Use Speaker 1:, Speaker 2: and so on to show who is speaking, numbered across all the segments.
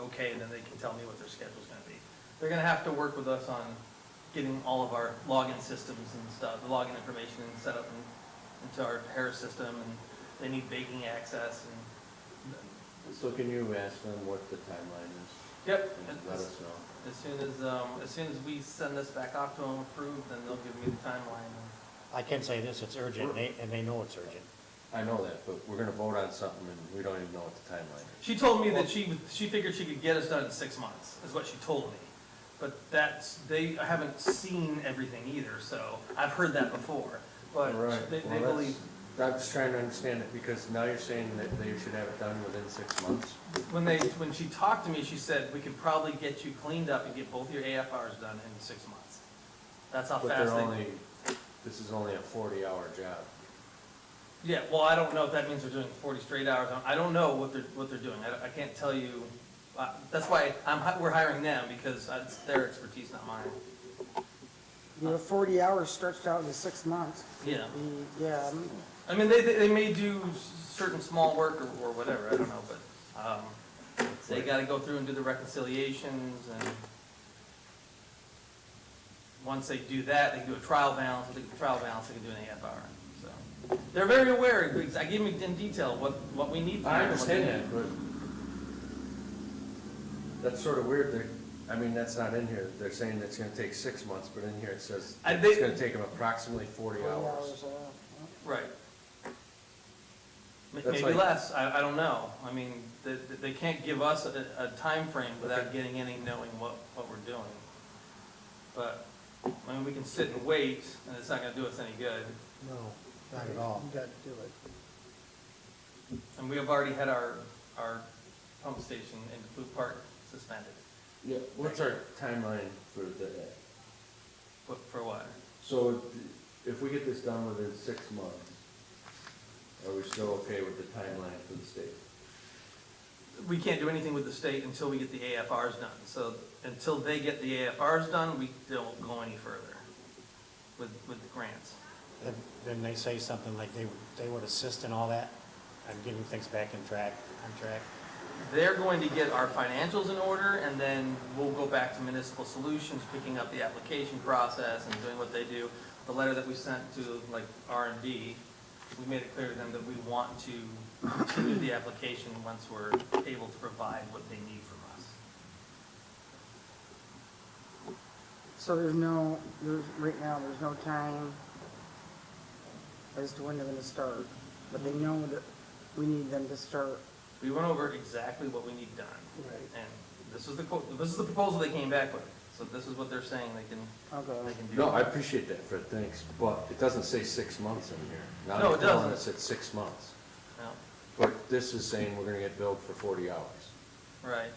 Speaker 1: okay, then they can tell me what their schedule's gonna be. They're gonna have to work with us on getting all of our login systems and stuff, the login information and set up in- into our Harris system, and they need baking access and,
Speaker 2: So can you ask them what the timeline is?
Speaker 1: yep.
Speaker 2: and Let us know.
Speaker 1: As soon as, um, as soon as we send this back off to them approved, then they'll give me the timeline.
Speaker 3: I can say this, it's urgent, and they, and they know it's urgent.
Speaker 2: I know that, but we're gonna vote on something and we don't even know what the timeline is.
Speaker 1: She told me that she, would- she figured she could get us done in six months, is what she told me. But that's, they, I haven't seen everything either, so I've heard that before. But
Speaker 2: Right,
Speaker 1: they, they
Speaker 2: well, that's-
Speaker 1: believe,
Speaker 2: I'm just trying to understand it, because now you're saying that they should have it done within six months.
Speaker 1: when they, when she talked to me, she said, we could probably get you cleaned up and get both your AFRs done in six months. That's how
Speaker 2: But they're
Speaker 1: fast they.
Speaker 2: only, this is only a forty-hour job.
Speaker 1: Yeah, well, I don't know if that means they're doing forty straight hours. I don't know what they're, what they're doing. I, don't- I can't tell you. Uh, that's why I'm, hi- we're hiring them because it's their expertise, not mine.
Speaker 4: You know, 40 hours stretched out into six months.
Speaker 1: Yeah.
Speaker 4: The- Yeah, um,
Speaker 1: I mean, they, they they may do certain small work or, or whatever, I don't know, but, um, they gotta go through and do the reconciliations and once they do that, they can do a trial balance, if they do a trial balance, they can do an AFR, so. They're very aware, because I gave them in detail what, what we need. from
Speaker 2: I
Speaker 1: them, what they need.
Speaker 2: understand that, but that's sort of weird, that, I mean, that's not in here, they're saying it's gonna take six months, but in here it says
Speaker 1: I
Speaker 2: it's
Speaker 1: think-
Speaker 2: gonna take them approximately forty
Speaker 4: 40
Speaker 2: hours.
Speaker 4: hours, uh,
Speaker 1: Right. M-
Speaker 2: That's
Speaker 1: Maybe
Speaker 2: like-
Speaker 1: less, I, I don't know. I mean, they, they can't give us a, a timeframe without getting any knowing what, what we're doing. But, I mean, we can sit and wait, and it's not gonna do us any good.
Speaker 3: No, not at all.
Speaker 4: You got to do it.
Speaker 1: And we have already had our, our pump station in Blue Park suspended.
Speaker 2: Yeah, what's our timeline for the,
Speaker 1: What, for what?
Speaker 2: so if we get this done within six months, are we still okay with the timeline for the state?
Speaker 1: We can't do anything with the state until we get the AFRs done. So until they get the AFRs done, we don't go any further with, with the grants.
Speaker 3: Then, then they say something like they, they would assist in all that, I'm getting things back in track, on track.
Speaker 1: They're going to get our financials in order, and then we'll go back to Municipal Solutions, picking up the application process and doing what they do. The letter that we sent to, like, R and D, we made it clear to them that we want to continue the application once we're able to provide what they need from us.
Speaker 4: So there's no, there's, right now, there's no time as to when they're going to start, but they know that we need them to start.
Speaker 1: We went over exactly what we need done,
Speaker 4: Right.
Speaker 1: and this is the, quote- this is the proposal they came back with. So this is what they're saying they can, they
Speaker 4: Okay.
Speaker 1: can do.
Speaker 2: No, I appreciate that, Fred, thanks, but it doesn't say six months in here. Now
Speaker 1: No,
Speaker 2: you're
Speaker 1: it
Speaker 2: telling
Speaker 1: doesn't.
Speaker 2: us it's six months,
Speaker 1: No,
Speaker 2: but this is saying we're gonna get billed for forty hours.
Speaker 1: Right.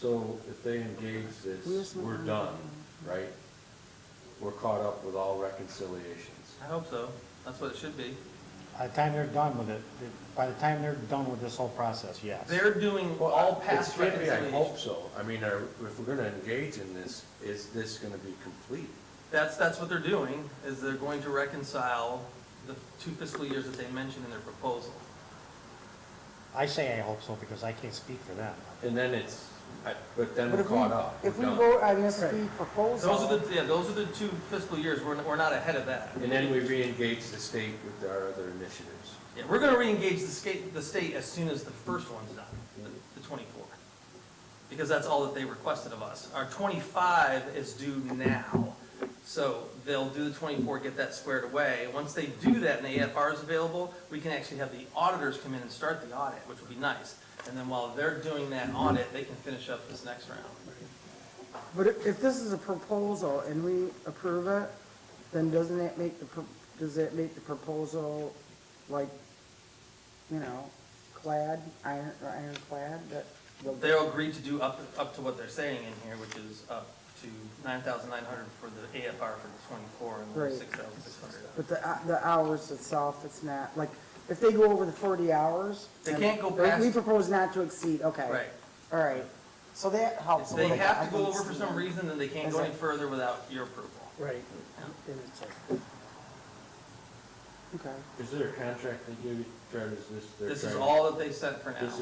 Speaker 2: So if they engage this,
Speaker 4: Where's my-
Speaker 2: we're done, right? We're caught up with all reconciliations.
Speaker 1: I hope so. That's what it should be.
Speaker 3: By the time they're done with it, by the time they're done with this whole process, yes.
Speaker 1: They're doing
Speaker 2: Well,
Speaker 1: all past
Speaker 2: it's gotta be, I
Speaker 1: reconciliation.
Speaker 2: hope so. I mean, are, if we're gonna engage in this, is this gonna be complete?
Speaker 1: That's, that's what they're doing, is they're going to reconcile the two fiscal years that they mentioned in their proposal.
Speaker 3: I say I hope so, because I can't speak for them.
Speaker 2: And then it's, I- but then
Speaker 4: But
Speaker 2: we're
Speaker 4: if we,
Speaker 2: caught up.
Speaker 4: if
Speaker 2: we're
Speaker 4: we
Speaker 2: done.
Speaker 4: vote on this fee
Speaker 1: Those
Speaker 4: proposal.
Speaker 1: are the, yeah, those are the two fiscal years, we're, we're not ahead of that.
Speaker 2: And then we re-engage the state with our other initiatives.
Speaker 1: Yeah, we're gonna reengage the state, the state as soon as the first one's done, the- the twenty-four. Because that's all that they requested of us. Our twenty-five is due now. So they'll do the twenty-four, get that squared away. Once they do that and the AFR is available, we can actually have the auditors come in and start the audit, which would be nice. And then while they're doing that audit, they can finish up this next round.
Speaker 4: But if if this is a proposal and we approve it, then doesn't that make the, pro- does that make the proposal like, you know, clad, iron, or ironclad, that?
Speaker 1: They'll agree to do up, up to what they're saying in here, which is up to nine thousand nine hundred for the AFR for the twenty-four and
Speaker 4: Right.
Speaker 1: then six thousand six hundred.
Speaker 4: But the, hou- the hours itself, it's not, like, if they go over the forty hours.
Speaker 1: They
Speaker 4: then-
Speaker 1: can't go
Speaker 4: we- We
Speaker 1: past-
Speaker 4: propose not to exceed, okay.
Speaker 1: Right.
Speaker 4: All right, so that
Speaker 1: If
Speaker 4: helps a
Speaker 1: they
Speaker 4: little bit.
Speaker 1: have
Speaker 4: I
Speaker 1: to go
Speaker 4: can
Speaker 1: over for
Speaker 4: see
Speaker 1: some
Speaker 4: that.
Speaker 1: reason, then they can't
Speaker 4: Is
Speaker 1: go any
Speaker 4: it-
Speaker 1: further without your approval.
Speaker 4: Right. And it's like- Okay.
Speaker 2: Is there a contract that you, Fred, is this? they're
Speaker 1: This is
Speaker 2: trying-
Speaker 1: all that they sent for now.
Speaker 2: This